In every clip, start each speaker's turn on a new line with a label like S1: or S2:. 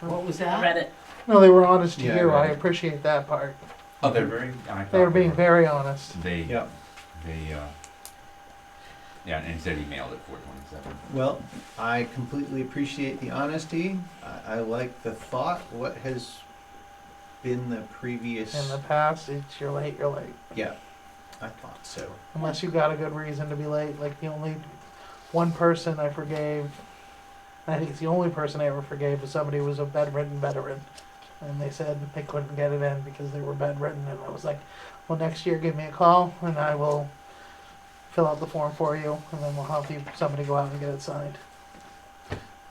S1: What was
S2: I
S1: that?
S2: read it.
S3: No, they were honest to
S4: Yeah,
S3: you. I
S4: right.
S3: appreciate that part.
S4: Oh, they're very. I thought
S3: They were
S4: they
S3: being
S4: were-
S3: very honest.
S5: They,
S4: Yeah.
S5: they, uh, yeah, and instead he mailed it 427.
S4: Well, I completely appreciate the honesty. I, I like the thought. What has been the previous?
S3: In the past, it's you're late, you're late.
S4: yeah, I thought so.
S3: Unless you got a good reason to be late. Like the only one person I forgave, I think it's the only person I ever forgave was somebody who was a bedridden veteran. And they said they couldn't get it in because they were bedridden. And I was like, well, next year give me a call and I will fill out the form for you. And then we'll have you, somebody go out and get it signed.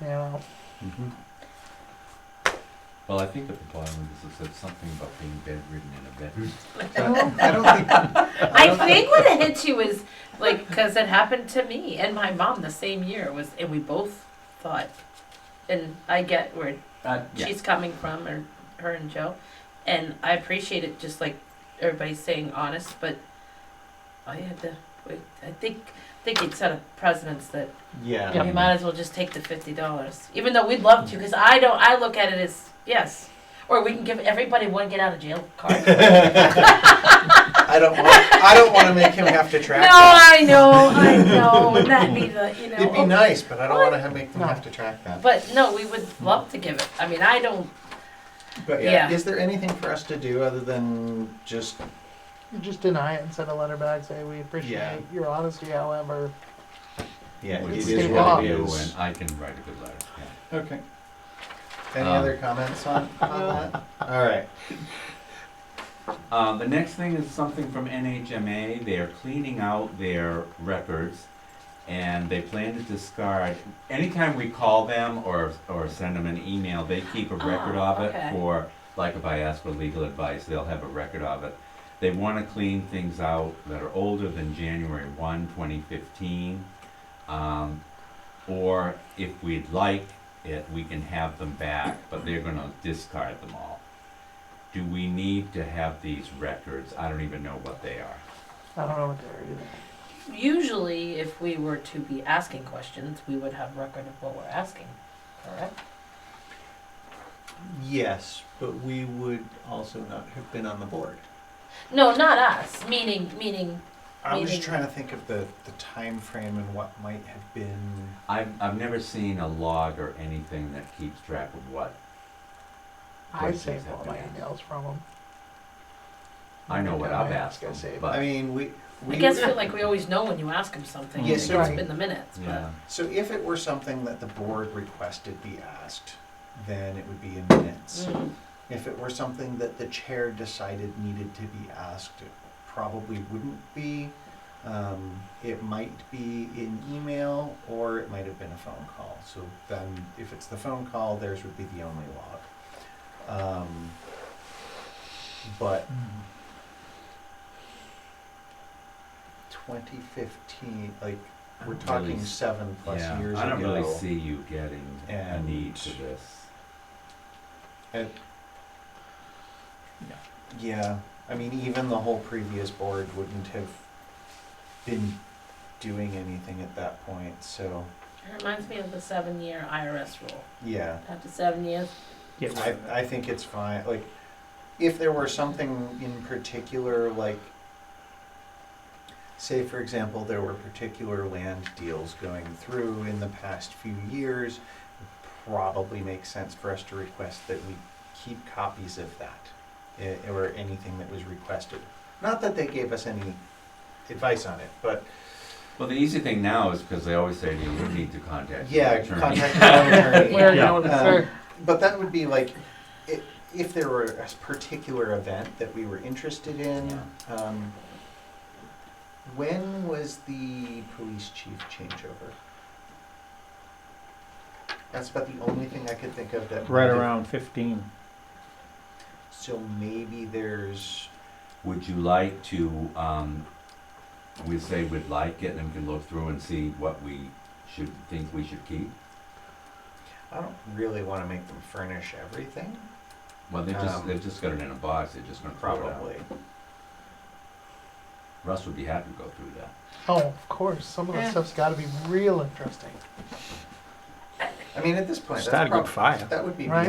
S3: You know,
S5: Mm-hmm. Well, I think at the bottom of this it said something about being bedridden in a bed.
S4: I don't think. I,
S2: I
S4: don't
S2: think what it hit you is like because it happened to me and my mom the same year was, and we both thought, and I get where
S5: Uh, yeah.
S2: she's coming from, or her and Joe, and I appreciate it. Just like everybody's saying, honest, but I had to. Wait, I think I think it set a precedence that
S4: Yeah.
S2: you might as well just take the fifty dollars, even though we'd love to, because I don't. I look at it as yes, or we can give everybody one get out of jail card.
S4: I don't. Want, I don't want to make him have to
S2: no,
S4: track. that.
S2: I know, I know, and that'd be the you know.
S4: It'd be nice, but I don't want to make them
S3: No.
S4: have to track that.
S2: But no, we would love to give it. I mean, I don't.
S4: But yeah,
S2: Yeah.
S4: is there anything for us to do other than just
S3: you just deny it and send a letter back. Say, we appreciate
S4: Yeah.
S3: your honesty. However,
S4: yeah?
S5: Which
S4: it
S5: we
S4: is
S5: can
S4: what it
S5: do,
S4: is.
S5: and I can write a good letter. Yeah.
S4: Okay. Any
S5: Um,
S4: other comments on, on that? All right.
S5: Um, the next thing is something from NHMA. They are cleaning out their records, and they plan to discard. Anytime we call them or or send them an email, they keep a record
S2: Oh,
S5: of it
S2: okay.
S5: for like if I ask for legal advice, they'll have a record of it. They want to clean things out that are older than January 1, 2015. Um, or if we'd like it, we can have them back, but they're going to discard them all. Do we need to have these records? I don't even know what they are.
S3: I don't know what they're either.
S2: Usually, if we were to be asking questions, we would have record of what we're asking. Correct.
S4: Yes, but we would also not have been on the board.
S2: No, not us. Meaning, meaning.
S4: I'm just
S2: Meeting.
S4: trying to think of the, the time frame and what might have been.
S5: I've, I've never seen a log or anything that keeps track of what.
S3: I
S5: Yes,
S3: save all my
S5: exactly.
S3: emails from them.
S5: I know what I've asked
S3: I
S5: them,
S3: save.
S5: but-
S4: I mean, we. we
S2: I guess feel like we always know when you ask them something.
S4: Yes,
S2: It's
S3: right.
S2: been the minutes, but
S5: Yeah.
S4: So if it were something that the board requested be asked, then it would be in minutes.
S2: Mm.
S4: If it were something that the chair decided needed to be asked, it probably wouldn't be. Um, it might be in email or it might have been a phone call. So then, if it's the phone call, theirs would be the only log. Um, but 2015, like
S5: I
S4: we're
S5: don't
S4: talking
S5: really s-
S4: seven plus
S5: yeah,
S4: years
S5: I don't
S4: ago.
S5: really see you getting a need
S4: And-
S5: for this.
S4: It- yeah, I mean, even the whole previous board wouldn't have been doing anything at that point. So
S2: It reminds me of the seven-year IRS rule.
S4: yeah,
S2: After seven years,
S4: I, I think it's fine. Like, if there were something in particular, like, say, for example, there were particular land deals going through in the past few years, it probably makes sense for us to request that we keep copies of that eh, or anything that was requested. Not that they gave us any advice on it, but
S5: Well, the easy thing now is because they always say to you, you need to contact your
S4: yeah,
S5: attorney.
S4: contact your own attorney.
S3: Where
S6: Yeah.
S3: you know,
S4: Um,
S3: sir,
S4: But that would be like, i- if there were a s- particular event that we were interested in, um, when was the police chief changeover? That's about the only thing I could think of that.
S6: Right around 15.
S4: So maybe there's,
S5: Would you like to, um, we say we'd like it, and we can look through and see what we should, think we should keep?
S4: I don't really wanna make them furnish everything,
S5: Well, they just,
S4: Um,
S5: they've just got it in a box, they're just gonna throw it out.
S4: probably.
S5: Russ would be happy to go through that.
S3: oh, of course, some of that
S2: Yeah.
S3: stuff's got to be real interesting.
S4: I mean, at this point,
S6: It's not
S4: that's
S6: a good
S4: prob-
S6: fire.
S4: that would be
S3: Right.
S4: beyond